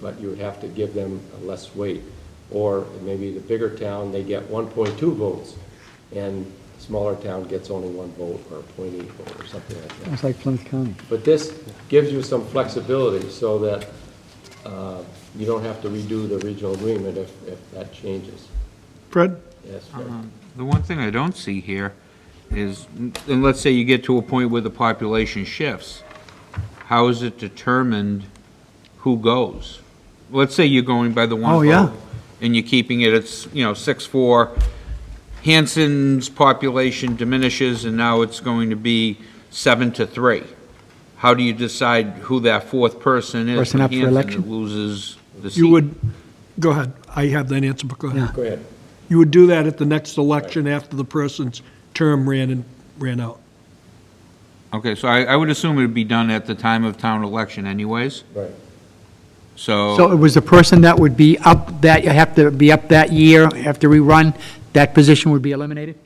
but you would have to give them less weight. Or maybe the bigger town, they get 1.2 votes, and smaller town gets only one vote or 0.8 vote or something like that. It's like Plymouth County. But this gives you some flexibility so that uh, you don't have to redo the regional agreement if, if that changes. Fred? Yes, Fred. Um, The one thing I don't see here is, and let's say you get to a point where the population shifts, how is it determined who goes? Let's say you're going by the one Oh, vote. yeah. And you're keeping it, it's, you know, six, four. Hanson's population diminishes and now it's going to be seven to three. How do you decide who that fourth person is? Person up for Hanson that election? Loses the seat. You would, go ahead, I have that answer, but go Yeah. ahead. Go ahead. You would do that at the next election after the person's term ran and, ran out. Okay, so I, I would assume it would be done at the time of town election anyways, Right. Oh. So it was the person that would be up that, you have to be up that year, have to rerun, that position would be eliminated?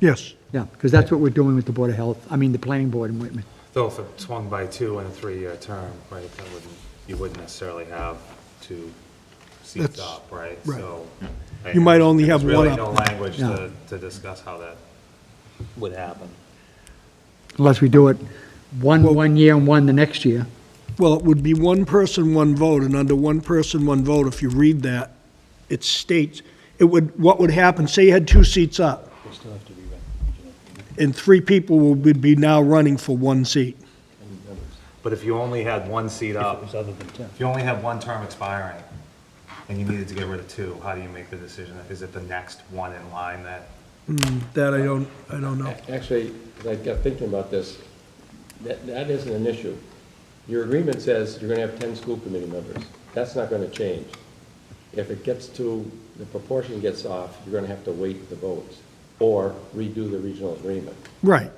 Yes. Yeah, because that's what we're doing with the Board of Health, I mean, the Planning Board in Whitman. Though if it swung by two in a three-year term, right, that wouldn't, you wouldn't necessarily have two seats That's- up, right? right. So You might only have one There's really up. no language No. to, to discuss how that would happen. Unless we do it one, one year and one the next year. Well, it would be one person, one vote, and under one person, one vote, if you read that, it states, it would, what would happen, say you had two seats up. And three people would be now running for one seat. But if you only had one seat up, if you only had one term expiring, and you needed to get rid of two, how do you make the decision? Is it the next one in line that? That I don't, I don't know. Actually, 'cause I got thinking about this, that, that isn't an issue. Your agreement says you're gonna have ten school committee members. That's not gonna change. If it gets to, the proportion gets off, you're gonna have to wait the votes or redo the regional agreement. Right.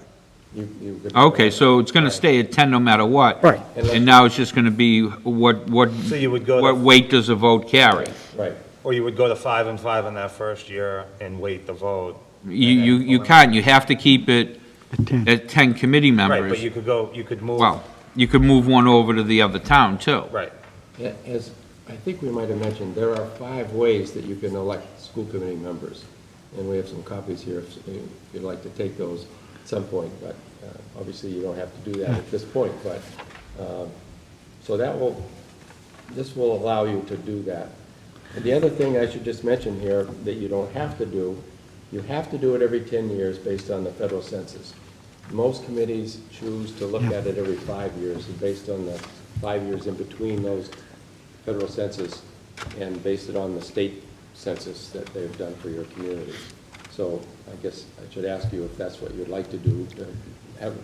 You, you. Okay, so it's going to stay at 10 no matter what? Right. And now it's just going to be what, what, So you would go to- what weight does a vote carry? Right. Or you would go to five and five in that first year and wait the vote. You, you you can't, you have to keep it At 10. at 10 committee Right, but members. you could go, you could move. Well, you could move one over to the other town, too. Right. A- As, I think we might have mentioned, there are five ways that you can elect school committee members. And we have some copies here if if you'd like to take those at some point, but uh, obviously you don't have to do that at this point, but, um, so that will, this will allow you to do that. And the other thing I should just mention here that you don't have to do, you have to do it every 10 years based on the federal census. Most committees choose to look at it every five years, and based on the five years in between those federal census, and based it on the state census that they've done for your community. So I guess I should ask you if that's what you'd like to do, to have,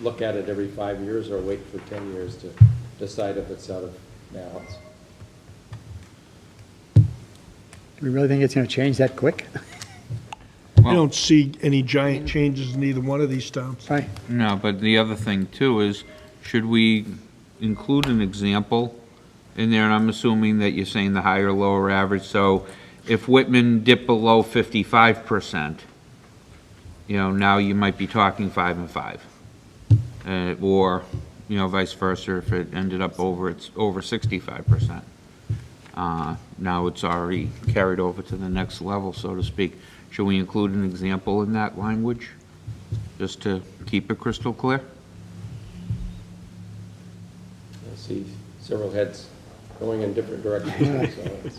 look at it every five years, or wait for 10 years to decide if it's out of balance. Do we really think it's going to change that quick? I don't see any giant changes in either one of these towns. Right, No, but the other thing, too, is should we include an example in there? And I'm assuming that you're saying the higher, lower average, so if Whitman dipped below 55%, you know, now you might be talking five and five. Uh, Or, you know, vice versa, if it ended up over, it's over 65%. Uh, Now it's already carried over to the next level, so to speak. Should we include an example in that language? just to keep it crystal clear? I see several heads going in different directions, so it's-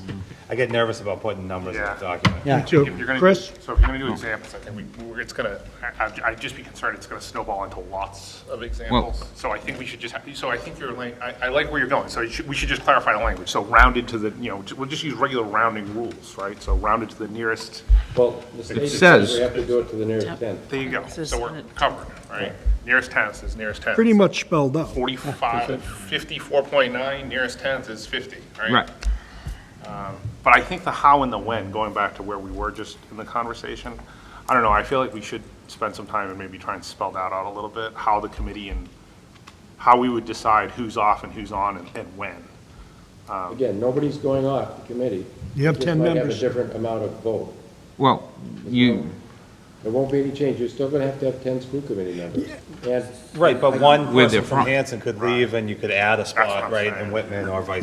I get nervous about putting numbers in a Yeah. document. yeah. So, If you're gonna do- Chris? So if you're gonna do examples, I think we, we're- it's gonna, I- I'd, I'd just be concerned it's gonna snowball into lots of examples. So I think we should just, have- so I think you're, like- I, I like where you're going, so you should, we should just clarify the language. So rounded to the, you know, ju- we'll just use regular rounding rules, right? So rounded to the nearest, Well, the state says says- we have to do it to the nearest tenth. there you go. This is So on we're it. covered, right? Nearest tenth is nearest tenth. Pretty much spelled out. 45, 54.9, nearest tenth is 50, right? Um, Right. But I think the how and the when, going back to where we were just in the conversation, I don't know, I feel like we should spend some time and maybe try and spell that out a little bit, how the committee and how we would decide who's off and who's on and, and when. Again, nobody's going off the committee. You have Just 10 might members. have a different amount of vote. Well, you, There won't be any change, you're still gonna have to have ten school committee members. And Right, but one With person their from front. Hanson could leave and you could add a what spot, I'm right, saying. in Whitman or vice